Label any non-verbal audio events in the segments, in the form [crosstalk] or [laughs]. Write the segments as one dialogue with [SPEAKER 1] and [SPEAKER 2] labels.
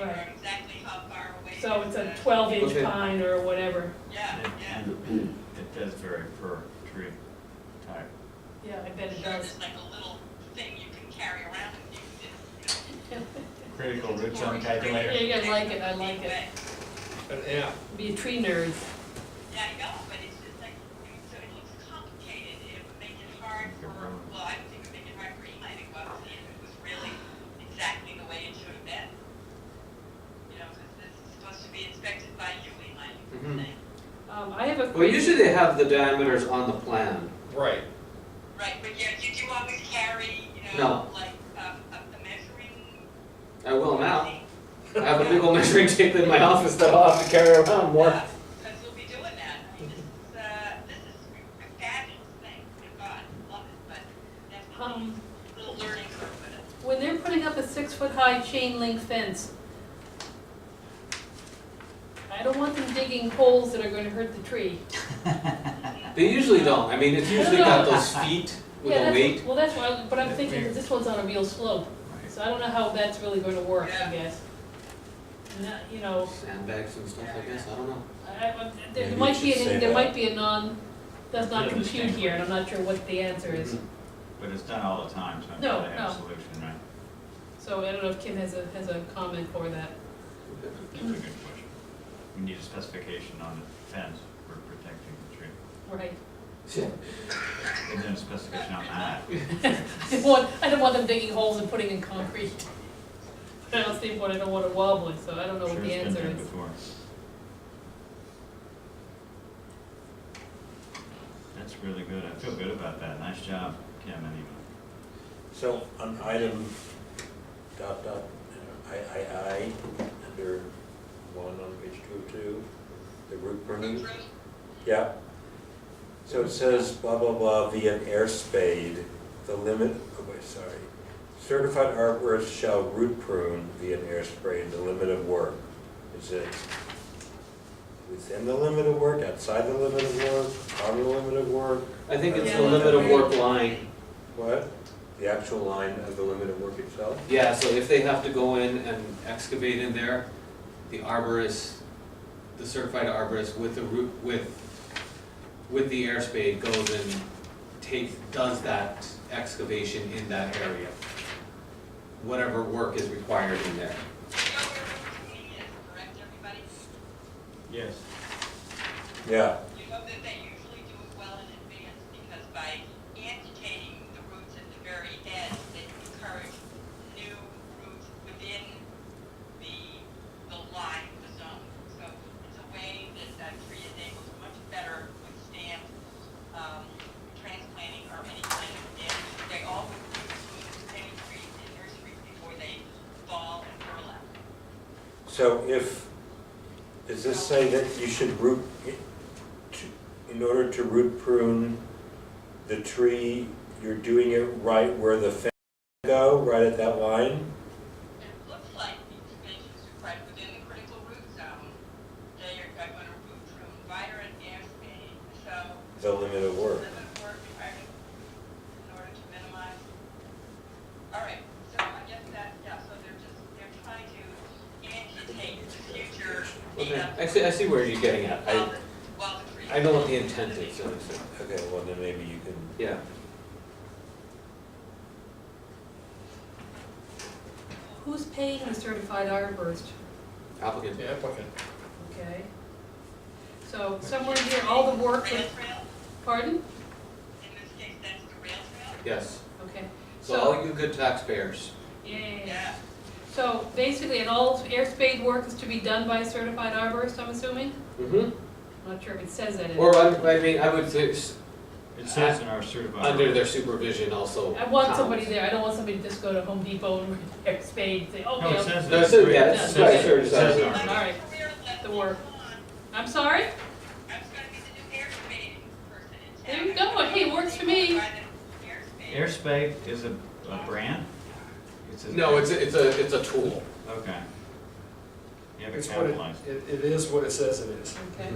[SPEAKER 1] Right.
[SPEAKER 2] exactly how far away.
[SPEAKER 1] So it's a
[SPEAKER 2] the-
[SPEAKER 1] twelve inch
[SPEAKER 3] Okay.
[SPEAKER 1] pine or whatever,
[SPEAKER 2] Yeah, yeah.
[SPEAKER 4] It does vary per tree type.
[SPEAKER 1] yeah, I bet it
[SPEAKER 2] Sure,
[SPEAKER 1] does.
[SPEAKER 2] there's like a little thing you can carry around with you.
[SPEAKER 4] Critical root zone
[SPEAKER 1] Yeah,
[SPEAKER 4] calculator.
[SPEAKER 1] you guys like it, I like it,
[SPEAKER 3] An app.
[SPEAKER 1] be a tree nerd.
[SPEAKER 2] Yeah, I know, but it's just like, so it looks complicated, it would make it hard for, well, I think it would make it hard for Eli to go out and see if it was really exactly the way it should have been. You know, because this is supposed to be inspected by you, Eli, you
[SPEAKER 3] Mhm.
[SPEAKER 2] would think.
[SPEAKER 1] Um, I have a
[SPEAKER 5] Well,
[SPEAKER 1] question,
[SPEAKER 5] usually they have the diameters on the plan.
[SPEAKER 3] Right.
[SPEAKER 2] Right, but yeah, did you always carry, you know,
[SPEAKER 5] No.
[SPEAKER 2] like, um, a a measuring?
[SPEAKER 5] I will now.
[SPEAKER 2] thing?
[SPEAKER 5] I have a big old measuring tape in my office that I'll have to carry around more.
[SPEAKER 2] Because we'll be doing that. I mean, this is, uh, this is a fabulous thing. My God, love it, but definitely
[SPEAKER 1] um,
[SPEAKER 2] a little learning curve with it.
[SPEAKER 1] when they're putting up a six foot high chain link fence, I don't want them digging holes that are gonna hurt the tree.
[SPEAKER 5] They usually don't. I mean, it's usually got those feet with
[SPEAKER 1] Yeah,
[SPEAKER 5] a
[SPEAKER 1] that's-
[SPEAKER 5] weight.
[SPEAKER 1] Well, that's why, but I'm
[SPEAKER 4] Yeah,
[SPEAKER 1] thinking,
[SPEAKER 4] fair.
[SPEAKER 1] that this one's on a real slope, so I don't know how that's really gonna work, I
[SPEAKER 2] Yeah.
[SPEAKER 1] guess. Not, you know,
[SPEAKER 5] Sandbags and stuff, I guess, I don't know.
[SPEAKER 1] I, I, there
[SPEAKER 4] Maybe you
[SPEAKER 1] might be,
[SPEAKER 4] should
[SPEAKER 1] an
[SPEAKER 4] say
[SPEAKER 1] there
[SPEAKER 4] that.
[SPEAKER 1] might be a non, does not
[SPEAKER 4] Yeah, this
[SPEAKER 1] compute
[SPEAKER 4] thing.
[SPEAKER 1] here, and I'm not sure what the answer is.
[SPEAKER 4] But it's done all the time, so I'm
[SPEAKER 1] No,
[SPEAKER 4] sure they have
[SPEAKER 1] no.
[SPEAKER 4] a solution, right?
[SPEAKER 1] So I don't know if Kim has a, has a comment for that.
[SPEAKER 4] That's a good question. We need a specification on the fence for protecting the tree.
[SPEAKER 1] Right. [laughs]
[SPEAKER 4] And then a specification on that.
[SPEAKER 1] Oh, I don't want, I don't want them digging holes and putting in concrete. [laughs] But I don't see what, I don't want it wobbling, so I don't know what
[SPEAKER 4] Sure
[SPEAKER 1] the
[SPEAKER 4] it's been
[SPEAKER 1] answer
[SPEAKER 4] done
[SPEAKER 1] is.
[SPEAKER 4] before. That's really good. I feel good about that. Nice job, Kim and Eva.
[SPEAKER 6] So on item dot dot, uh, I, I, I, under one on page two of two, the root permit, yeah. So it says blah, blah, blah, via an air spade, the limit, oh wait, sorry. Certified arborist shall root prune via an air spade, the limit of work. Is it within the limit of work, outside the limit of work, on the limit of work?
[SPEAKER 5] [laughs] I think it's the
[SPEAKER 1] Yeah,
[SPEAKER 5] limit of
[SPEAKER 1] right.
[SPEAKER 5] work line.
[SPEAKER 6] What? The actual line of the limit of work itself?
[SPEAKER 5] Yeah, so if they have to go in and excavate in there, the arborist, the certified arborist with the root, with, with the air spade goes and takes, does that excavation in that area. Whatever work is required in there.
[SPEAKER 2] You know where root pruning is, correct, everybody?
[SPEAKER 4] Yes.
[SPEAKER 6] Yeah.
[SPEAKER 2] You know that they usually do it well in advance because by amputating the roots at the very end, they encourage new roots within the, the line, the zone. So it's a way that that tree is able to much better withstand, um, transplanting or any kind of damage. They always do prune any trees in nurseries before they fall and burlap.
[SPEAKER 6] So if, does this say that you should root, in order to root prune the tree, you're doing it right where the fence go, right at that line?
[SPEAKER 2] It looks like these dimensions are right within the critical root zone. They are going to root from wider and air speed, so
[SPEAKER 6] The limit of work.
[SPEAKER 2] limit of work requirement in order to minimize. All right, so I guess that, yeah, so they're just, they're trying to anticipate the future.
[SPEAKER 5] Okay,
[SPEAKER 2] data
[SPEAKER 5] I see, I see where you're getting at.
[SPEAKER 2] While
[SPEAKER 5] I,
[SPEAKER 2] the, while the tree.
[SPEAKER 5] I know what the intent is, so, so,
[SPEAKER 6] Okay, well, then maybe you can,
[SPEAKER 5] yeah.
[SPEAKER 1] Who's paying the certified arborist?
[SPEAKER 5] Applicant,
[SPEAKER 3] Yeah, applicant.
[SPEAKER 1] Okay. So somewhere here, all the work,
[SPEAKER 2] Rail
[SPEAKER 1] that-
[SPEAKER 2] trail,
[SPEAKER 1] pardon?
[SPEAKER 2] in this case, that's the rail trail.
[SPEAKER 5] yes.
[SPEAKER 1] Okay,
[SPEAKER 5] So all you good taxpayers,
[SPEAKER 1] yeah.
[SPEAKER 2] Yeah,
[SPEAKER 1] So basically, and all air spade work is to be done by a certified arborist, I'm assuming? Mm-hmm.
[SPEAKER 5] hmm
[SPEAKER 1] I'm not sure if it says that in.
[SPEAKER 5] or I, I mean, I would say, s-
[SPEAKER 4] It says in our certified.
[SPEAKER 5] under their supervision also.
[SPEAKER 1] I want
[SPEAKER 5] counts.
[SPEAKER 1] somebody there, I don't want somebody to just go to Home Depot and [laughs] air spade, and say, oh,
[SPEAKER 4] No, it
[SPEAKER 1] yeah,
[SPEAKER 4] says.
[SPEAKER 5] No, it
[SPEAKER 4] it's
[SPEAKER 5] says-
[SPEAKER 4] great.
[SPEAKER 5] yeah,
[SPEAKER 4] It
[SPEAKER 1] it's
[SPEAKER 4] says-
[SPEAKER 1] right,
[SPEAKER 4] it
[SPEAKER 5] sure, it
[SPEAKER 4] says
[SPEAKER 5] says-
[SPEAKER 4] our-
[SPEAKER 1] All right, the work. I'm sorry?
[SPEAKER 2] I was gonna be the new air spade person in town.
[SPEAKER 1] There you go. Hey, works for me.
[SPEAKER 2] By the air spade.
[SPEAKER 4] Airspace is a, a brand? a-
[SPEAKER 5] No, it's a, it's a, it's a tool.
[SPEAKER 4] Okay. You have it
[SPEAKER 7] It's what it,
[SPEAKER 4] capitalized.
[SPEAKER 7] it- it is what it says it is.
[SPEAKER 1] Okay.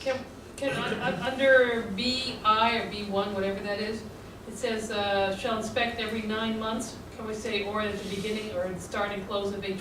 [SPEAKER 1] Can, can, un- un- under BI or B1, whatever that is, it says, uh, shall inspect every nine months, can we say, or at the beginning, or at the start and close of each